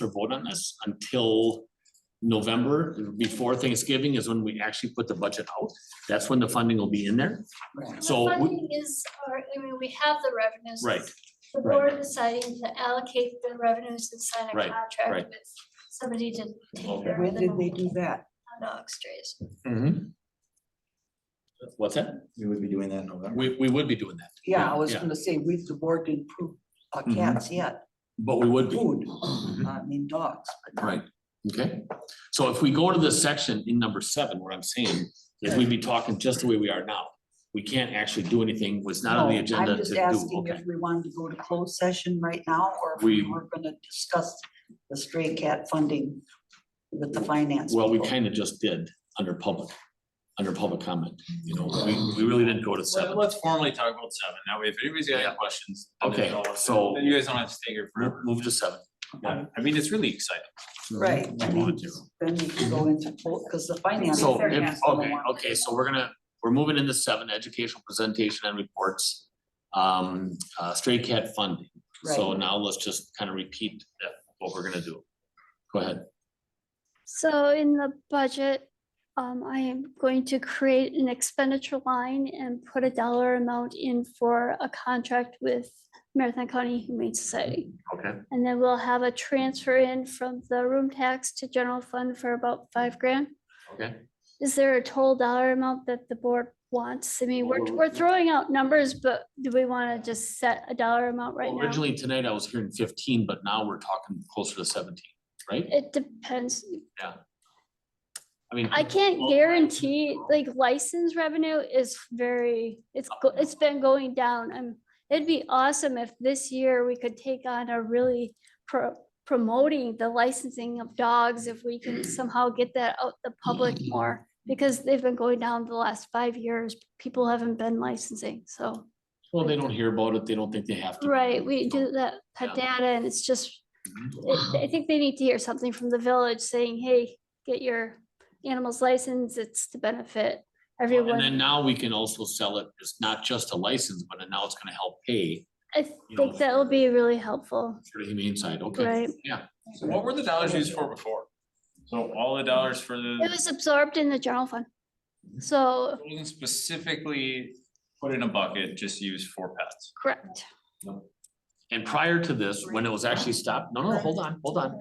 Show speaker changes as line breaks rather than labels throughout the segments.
to vote on this until November, before Thanksgiving is when we actually put the budget out. That's when the funding will be in there.
And
So
The
we-
funding is, or, I mean, we have the revenues.
Right,
It's The
right.
board deciding to allocate the revenues and sign a
Right, right.
contract with somebody to take
Okay.
care
When
of
did they do
the
that?
dog strays.
What's that?
We would be doing that in November.
We, we would be doing that,
Yeah, I was
Yeah.
gonna say, we, the board didn't prove uh,
Mhm.
cats yet,
but we would be.
food,
Mhm.
I mean dogs. but
Right, okay. So if we go to this section in number seven, what I'm saying is we'd be talking just the way we are now. We can't actually do anything, was not on the
no,
agenda to
I'm just
do,
asking
okay?
if we wanted to go to closed session right now, or if we
We-
were gonna discuss the stray cat funding with the finance.
Well, we
people.
kind of just did under public, under public comment, you know, we, we really didn't go to
Well,
seven.
Let's formally talk about seven. That way, if anybody's got
Yeah.
any questions. then
Okay,
they'll-
so-
Then you guys don't have to stay here
Move-
forever.
Move to seven. yeah.
I mean, it's really exciting.
Right, I
We
mean,
wanted to.
then we can go into, because the finance.
So,
people
if,
has to
okay,
know.
okay, so we're gonna, we're moving into seven, educational presentation and reports. Um, uh, stray cat funding. So
Right.
now let's just kind of repeat that, what we're gonna do. Go ahead.
So in the budget, um, I am going to create an expenditure line and put a dollar amount in for a contract with Marathon County Humane Society.
Okay.
And then we'll have a transfer in from the room tax to general fund for about five grand.
Okay.
Is there a total dollar amount that the board wants? I mean, we're,
Well,
we're throwing out numbers, but do we want to just set a dollar amount right now?
Originally tonight I was hearing fifteen, but now we're talking closer to seventeen, right?
It depends.
I mean.
I can't
well,
guarantee, like license revenue is very, it's, go- it's been going down. Um, it'd be awesome if this year we could take on a really pro- promoting the licensing of dogs, if we can somehow get that out the public more. Because they've been going down the last five years, people haven't been licensing, so,
Well, they don't hear about it. They don't think they have to.
right, we do that pet data and it's just.
Mm-hmm.
I I think they need to hear something from the village saying, hey, get your animals licensed, it's to benefit
And then
everyone.
now we can also sell it. It's not just a license, but now it's gonna help pay
I
you know,
think that'll be really helpful,
for the humane side, okay?
right?
Yeah,
So what were the dollars used for before? So all the dollars for
Mm.
the,
It was absorbed in the general fund. So,
it wasn't specifically put in a bucket, just used for pets.
correct.
and prior to this, when it was actually stopped, no, no, hold on, hold on.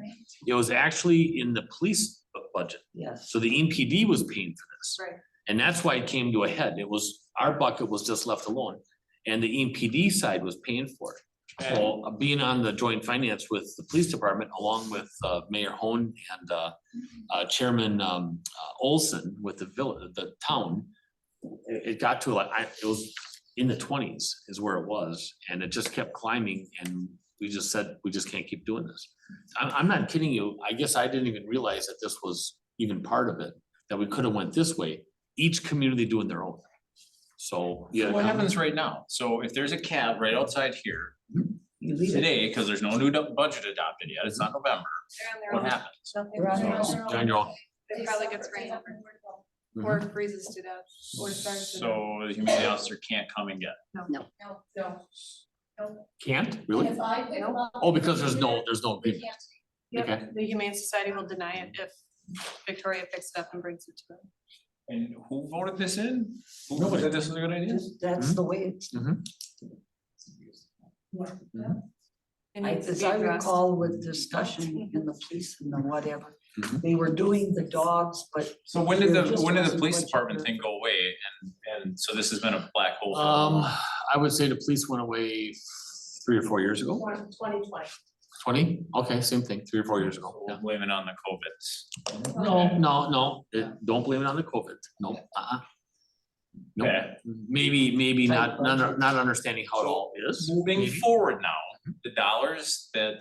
It was actually in the police bu- budget.
Yes,
So the E NPD was paying for this.
Right.
And that's why it came to a head. It was, our bucket was just left alone. And the E NPD side was paying for it. So uh, being on the joint finance with the police department along with uh, Mayor Hone and uh, uh, Chairman um, uh, Olson with the village, the town. It, it got to like, I, it was in the twenties is where it was and it just kept climbing and we just said, we just can't keep doing this. I'm, I'm not kidding you. I guess I didn't even realize that this was even part of it, that we could have went this way, each community doing their own. So, yeah.
So What happens right now? So if there's a cab right outside here
you leave it.
today, because there's no new do- budget adopted yet, it's not November,
They're on
what
their own.
happens?
They're on
They're
their
on
own.
their
On
own.
your own.
It probably gets rained out
mm-hmm.
or freezes to death or starves to death.
So the humane officer can't come and get.
No, no.
Can't, really?
If I pick them up,
Oh, because there's no, there's no agreement.
yep,
okay.
The Humane Society will deny it if Victoria picks it up and brings it to them.
it. And who voted this in? Who
Nobody.
said this was a good idea?
Just-
Mm-hmm.
That's the way it's.
It
I-
needs to
As
be
I
addressed.
recall with discussion in the police and the whatever,
Mhm.
they were doing the dogs, but
So when did
There
the,
just
when did the
wasn't
police
much
department
effort.
thing go away and, and so this has been a black hole? for a
Um,
while.
I would say the police went away three or four years ago.
Twenty twenty.
Twenty? Okay, same thing, three or four years ago.
We'll blame it on the COVIDs.
No, no, no, it- don't blame it on the COVID. No, uh-uh. No,
Okay,
maybe, maybe not, not, not understanding how it all is.
moving
maybe. Mm-hmm.
forward now, the dollars that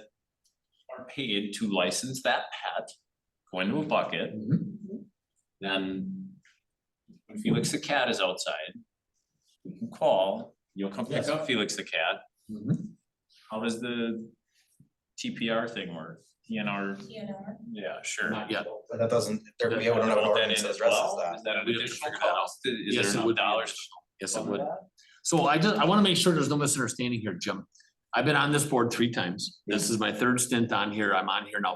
are paid to license that pet go into a bucket,
Mhm.
then when Felix the cat is outside, you can call, you'll come pick
Yes.
up Felix the cat.
Mhm.
How does the TPR thing work? TNR, yeah, sure.
Not yet.
But that doesn't, there, we
Is
don't have an
that
ordinance
in
that
as
addresses
well?
that.
Is that an
We have to
additional
figure that out.
cost? Is
Yes, it
there enough
would be.
dollars?
Yes, it would. So I just, I wanna make sure there's no misunderstanding here, Jim. I've been on this board three times. This is my third stint on here. I'm on here now